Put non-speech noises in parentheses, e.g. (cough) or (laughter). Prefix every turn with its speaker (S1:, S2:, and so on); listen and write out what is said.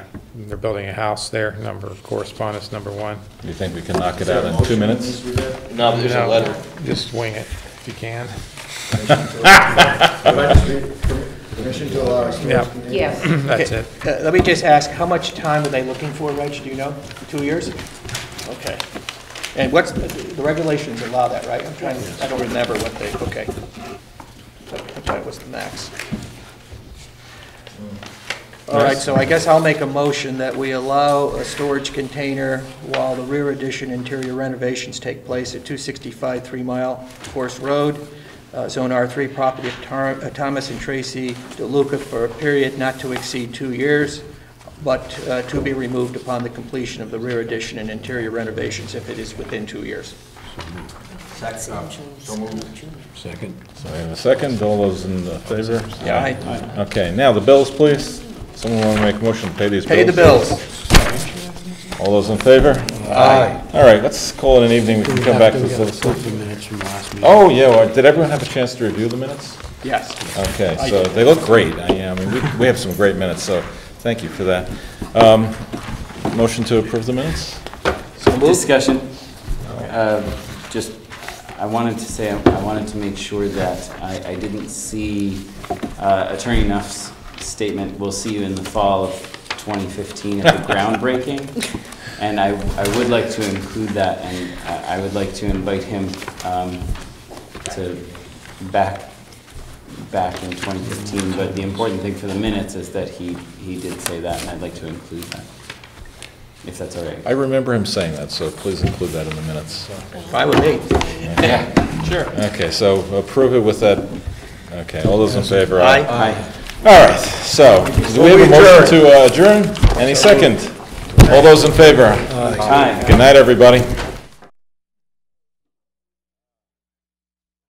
S1: They're building a house there, number, correspondence number one.
S2: You think we can knock it out in two minutes?
S3: No, there's a
S1: No,
S3: letter.
S1: Just wing it if you can.
S4: Permission to allow
S1: (laughs)
S4: a storage
S1: Yeah.
S4: container?
S5: Yes,
S1: That's
S6: Okay,
S1: it.
S6: uh, Let me just ask, how much time are they looking for, Reg, do you know? Two years? Okay. And what's, the regulations allow that, right? I'm trying, to- I don't remember what they, okay. I'm sorry, what's the max? All right, so I guess I'll make a motion that we allow a storage container while the rear addition interior renovations take place at 265 Three Mile Course Road, uh, Zone R3, property of Tar- uh, Thomas and Tracy DeLuca for a period not to exceed two years, but uh, to be removed upon the completion of the rear addition and interior renovations if it is within two years.
S7: Second.
S2: So we have a second, all those in favor?
S6: Yeah, aye.
S2: Okay, now the bills, please. Someone want to make a motion to pay these bills?
S6: Pay the bills.
S2: All those in favor? Aye. All right, let's call it an evening, we can come back to this other stuff.
S7: minutes from last meeting.
S2: Oh, yeah, well, did everyone have a chance to review the minutes?
S6: Yes.
S2: Okay, so they look great, I I mean, we- we have some great minutes, so thank you for that. Um, Motion to approve the minutes?
S3: Discussion. Um, Just, I wanted to say, I wanted to make sure that I, I didn't see uh, Attorney Nuff's statement, "We'll see you in the fall of 2015 at the groundbreaking." And I, I would like to include that, and I I would like to invite him um, to back, back in 2015. But the important thing for the minutes is that he, he did say that, and I'd like to include that, if that's all right.
S2: I remember him saying that, so please include that in the minutes.
S6: Fine with me.
S3: Yeah, sure.
S2: Okay, so approve it with that, okay, all those in favor?
S6: Aye.
S3: Aye.
S2: All right, so, do we have a motion to uh, adjourn? Any second? All those in favor?
S3: Aye.
S2: Good night, everybody.